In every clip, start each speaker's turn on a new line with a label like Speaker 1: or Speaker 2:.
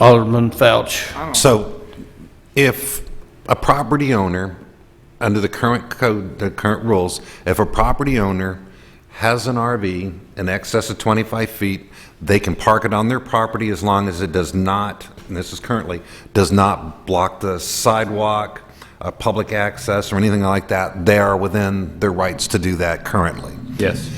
Speaker 1: Alderman Fouch.
Speaker 2: So if a property owner, under the current code, the current rules, if a property owner has an RV in excess of 25 feet, they can park it on their property as long as it does not, and this is currently, does not block the sidewalk, uh, public access, or anything like that. They are within their rights to do that currently
Speaker 1: Yes.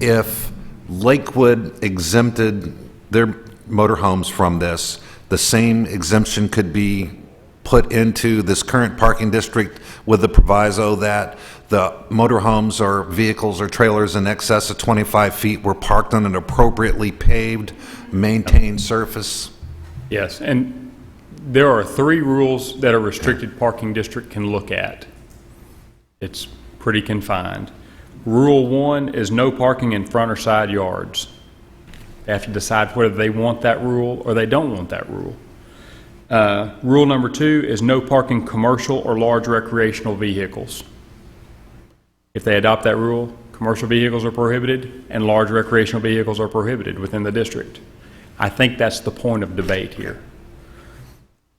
Speaker 2: if Lakewood exempted their motorhomes from this, the same exemption could be put into this current parking district with the proviso that the motorhomes or vehicles or trailers in excess of 25 feet were parked on an appropriately paved, maintained surface?
Speaker 3: Yes, and there are three rules that a restricted parking district can look at. It's pretty confined. Rule one is no parking in front or side yards. They have to decide whether they want that rule or they don't want that rule. Uh, Rule number two is no parking commercial or large recreational vehicles. If they adopt that rule, commercial vehicles are prohibited and large recreational vehicles are prohibited within the district. I think that's the point of debate here.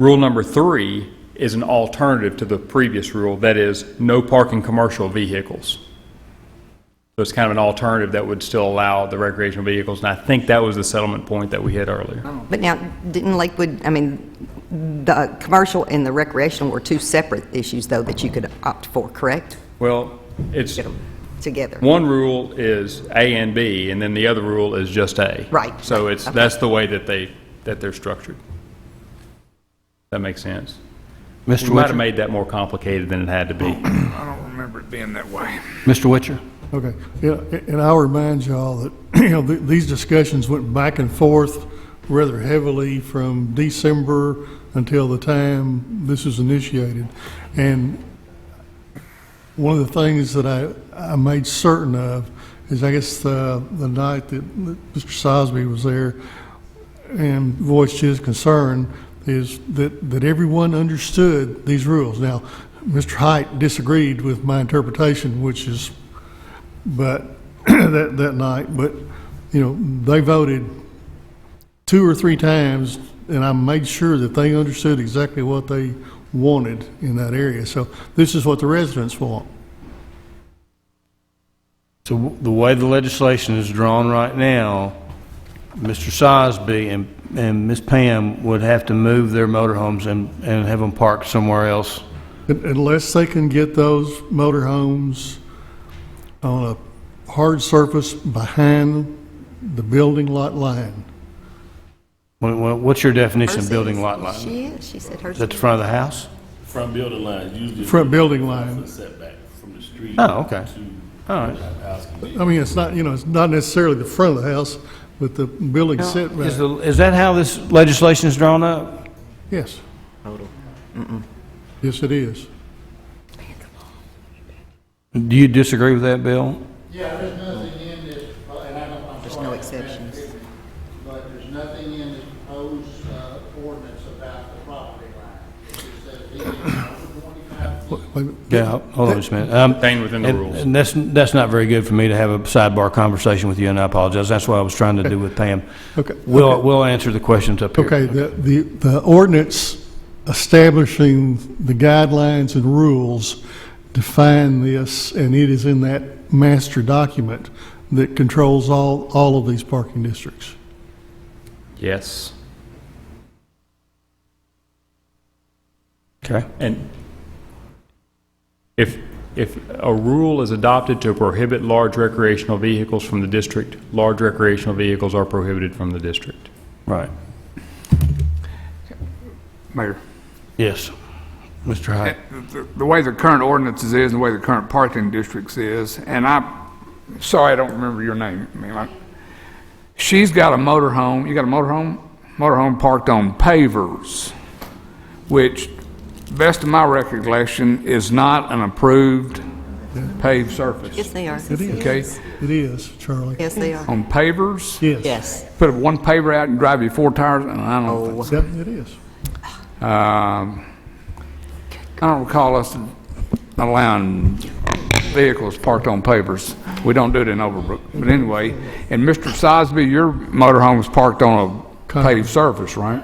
Speaker 3: Rule number three is an alternative to the previous rule, that is, no parking commercial vehicles. So it's kind of an alternative that would still allow the recreational vehicles, and I think that was the settlement point that we hit earlier.
Speaker 4: But now, didn't Lakewood, I mean, the commercial and the recreational were two separate issues, though, that you could opt for, correct?
Speaker 3: Well, it's,
Speaker 4: Get them together.
Speaker 3: one rule is A and B, and then the other rule is just A.
Speaker 4: Right.
Speaker 3: So it's, that's the way that they, that they're structured. That makes sense.
Speaker 1: Mr.
Speaker 3: We might have
Speaker 1: Witcher.
Speaker 3: made that more complicated than it had to be.
Speaker 5: I don't remember it being that way.
Speaker 1: Mr. Witcher.
Speaker 6: Okay, Yeah, and I'll remind y'all that, you know, th- these discussions went back and forth rather heavily from December until the time this was initiated. And one of the things that I, I made certain of is, I guess, uh, the night that that Mr. Sosby was there and voiced his concern is that, that everyone understood these rules. Now, Mr. Height disagreed with my interpretation, which is but that that night, but you know, they voted two or three times, and I made sure that they understood exactly what they wanted in that area. So this is what the residents want.
Speaker 1: So w- the way the legislation is drawn right now, Mr. Sosby and, and Ms. Pam would have to move their motorhomes and, and have them parked somewhere else.
Speaker 6: Un- Unless they can get those motorhomes on a hard surface behind the building lot line.
Speaker 1: What- what- What's your definition
Speaker 4: Hers
Speaker 1: of building
Speaker 4: is-
Speaker 1: lot line?
Speaker 4: She is, she said hers.
Speaker 1: Is that the front of the house?
Speaker 7: Front building line, usually.
Speaker 6: Front building line.
Speaker 7: Setback from the street.
Speaker 1: Oh, okay.
Speaker 7: To
Speaker 1: All right.
Speaker 7: house.
Speaker 6: I mean, it's not, you know, it's not necessarily the front of the house, but the building
Speaker 1: Is,
Speaker 6: setback.
Speaker 1: the- is that how this legislation is drawn up?
Speaker 6: Yes. Yes, it is.
Speaker 1: Do you disagree with that, Bill?
Speaker 8: Yeah, there's nothing in this, uh, and I don't, I'm sorry.
Speaker 4: There's no
Speaker 8: if that's
Speaker 4: exceptions.
Speaker 8: different, But there's nothing in this proposed uh, ordinance about the property line. It just says he can own 25
Speaker 6: Wait a minute.
Speaker 1: Yeah, hold on just a minute. Um,
Speaker 3: Contained within the
Speaker 1: and-
Speaker 3: rules.
Speaker 1: And that's, that's not very good for me to have a sidebar conversation with you, and I apologize. That's what I was trying to do with Pam.
Speaker 6: Okay.
Speaker 1: We'll, we'll answer the questions up here.
Speaker 6: Okay, the, the the ordinance establishing the guidelines and rules define this, and it is in that master document that controls all, all of these parking districts.
Speaker 3: Yes.
Speaker 1: Okay.
Speaker 3: And if, if a rule is adopted to prohibit large recreational vehicles from the district, large recreational vehicles are prohibited from the district.
Speaker 1: Right.
Speaker 5: Mayor.
Speaker 1: Yes. Mr. Hyde.
Speaker 5: The the way the current ordinances is, and the way the current parking districts is, and I'm sorry, I don't remember your name. I mean, like, She's got a motorhome, you got a motorhome? Motorhome parked on pavers, which, best of my recollection, is not an approved paved
Speaker 4: Yes,
Speaker 5: surface.
Speaker 4: they are.
Speaker 5: Okay?
Speaker 6: It is, Charlie.
Speaker 4: Yes, they are.
Speaker 5: On pavers,
Speaker 6: Yes.
Speaker 4: Yes.
Speaker 5: put one paver out and drive your four tires, and I don't think
Speaker 6: Yep, it is.
Speaker 5: Um, I don't recall us allowing vehicles parked on pavers. We don't do it in Overbrook. But anyway, and Mr. Sosby, your motorhome's parked on a paved surface, right?